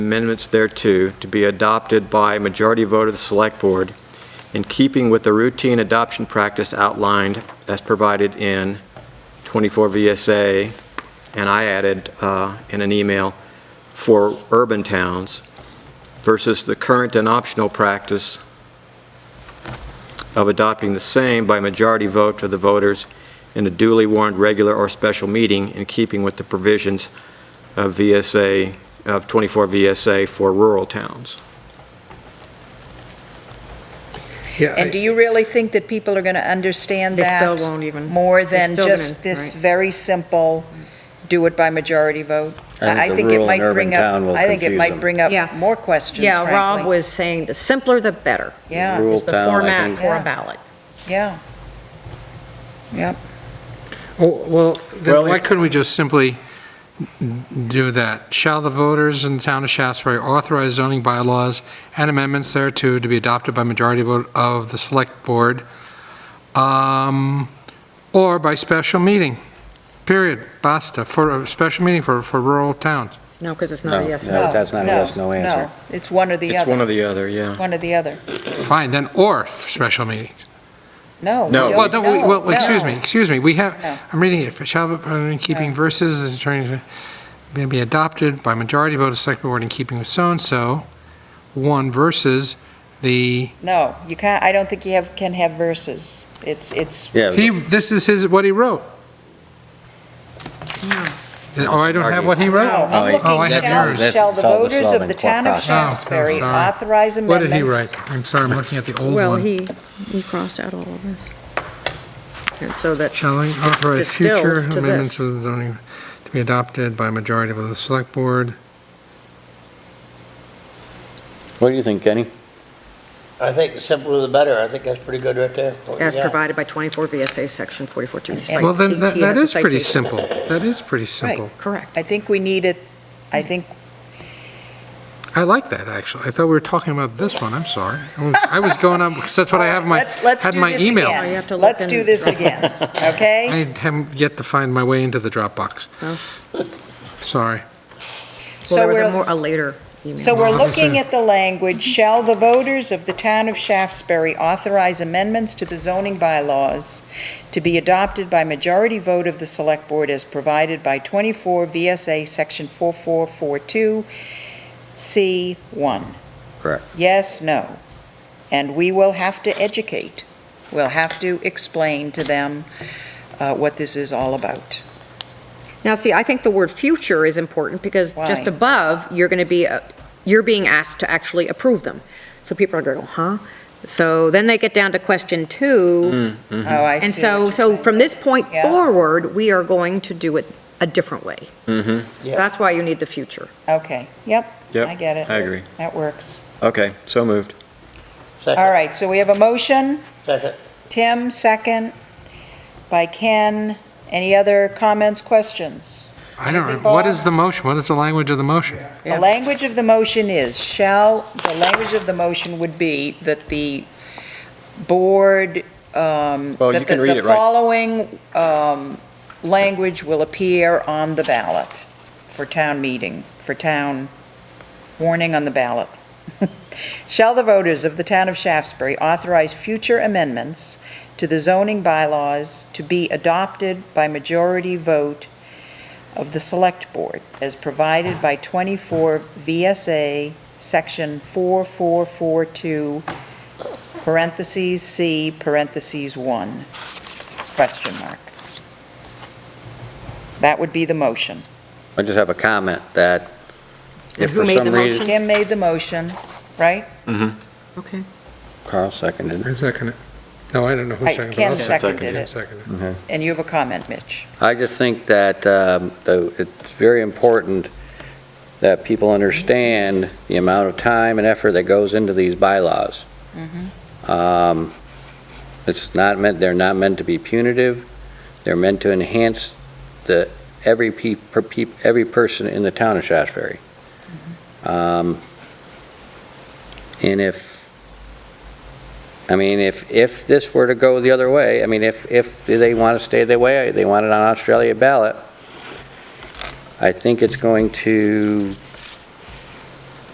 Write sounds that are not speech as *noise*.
amendments thereto to be adopted by majority vote of the Select Board in keeping with the routine adoption practice outlined as provided in 24 VSA, and I added uh, in an email, for urban towns versus the current and optional practice of adopting the same by majority vote of the voters in a duly warned regular or special meeting in keeping with the provisions of VSA, of 24 VSA for rural towns. Yeah, And do you really think that people are going to understand They still that won't even. more they're than still gonna- just this right. very simple, do it by majority vote? I think the it rural might and urban bring up. town will I think it confuse might them. bring up Yeah. more questions, Yeah, Rob frankly. was saying the simpler the better. Yeah, Rural It's the town, I format think. for Yeah. a ballot. yeah. Yep, oh, well, Well, then why if- couldn't we just simply do that? Shall the voters in the town of Shaftesbury authorize zoning bylaws and amendments thereto to be adopted by majority vote of the select board, um, or by special meeting? Period, basta, for a special meeting for, for rural towns. No, because it's not No, a no, yes. no, that's not a no, yes, no answer. no. It's one or the It's one other, or the other, yeah. one or the other. Fine, then, or special meeting. No. we No. don't- Well, don't we- well, no, excuse no. me, excuse me, we have, No. I'm reading it, for shall be in keeping versus is trying to may be adopted by majority vote of select board in keeping with so-and-so, one versus the, No, you can't, I don't think you have, can have verses. It's, it's, Yeah, he, this is his, what he wrote. Oh, I don't have what he wrote? no, Hmm. I'm Oh, I have looking, shall, yours. shall the Solve the voters of solving the town qua- of Oh, Shaftesbury sorry. authorize What did amendments? he write? I'm sorry, I'm looking at the old Well, one. he, he crossed out all of this. And so that, Shall I authorize future Distilled to amendments this. of the zoning to be adopted by majority vote of the select board? what do you think, Kenny? I think the simpler the better. I think that's pretty good right there. Oh, What you as got. provided by 24 VSA Section 44-2. Well, then, that that is pretty simple, that is pretty simple. Correct. I think we need it, I think, I like that, actually. I thought we were talking about this one, I'm sorry. I was- I was going on, because that's what I have in my, let's, let's had do my this email. again. Oh, you have to look Let's in do the this Dropbox. again, *laughs* okay? I haven't yet to find my way into the Dropbox. Oh. Sorry. Well, So there was a we're, more, a later email. so we're Well, this looking is- at the language, shall the voters of the town of Shaftesbury authorize amendments to the zoning bylaws to be adopted by majority vote of the select board as provided by 24 VSA Section 4442 C1? Correct. Yes, no. And we will have to educate. We'll have to explain to them uh, what this is all about. Now, see, I think the word future is important because just Why? above, you're going to be, uh, you're being asked to actually approve them. So people are going to go, huh? So then they get down to question Hmm. Hmm, two. Oh, I see. And what so, you're so saying. from this point Yeah. forward, we are going to do it a different way. Mm-hmm, Yeah. That's why you need the future. Okay, yep, Yep, I get I it. agree. That works. Okay, so moved. Second, All right, so we have a motion. Second. Tim, second by Ken. Any other comments, questions? I don't, Anything, what Bob? is the motion? What is the language of the motion? The Yeah. language of the motion is, shall, the language of the motion would be that the board, um, Well, you that can the- read the it, right? following um, language will appear on the ballot for town meeting, for town warning on the ballot. *laughs* Shall the voters of the town of Shaftesbury authorize future amendments to the zoning bylaws to be adopted by majority vote of the Select Board as provided by 24 VSA, Section 4442, parentheses C, parentheses 1, question mark. That would be the motion. I just have a comment that if Who for made some the reason. Tim made the motion, right? Okay. Carl seconded. I second it. No, I don't know who Right, seconded it. Ken I'll second seconded Ken it. seconded And you have a comment, Mitch? I just think that, um, though, it's very important that people understand the amount of time and effort that goes into these bylaws. Um, It's not meant, they're not meant to be punitive, they're meant to enhance the, every pe, per peop- every person in the town of Shasberry. Um, And if I mean, if, if this were to go the other way, I mean, if, if they want to stay the way, they want it on Australia ballot, I think it's going to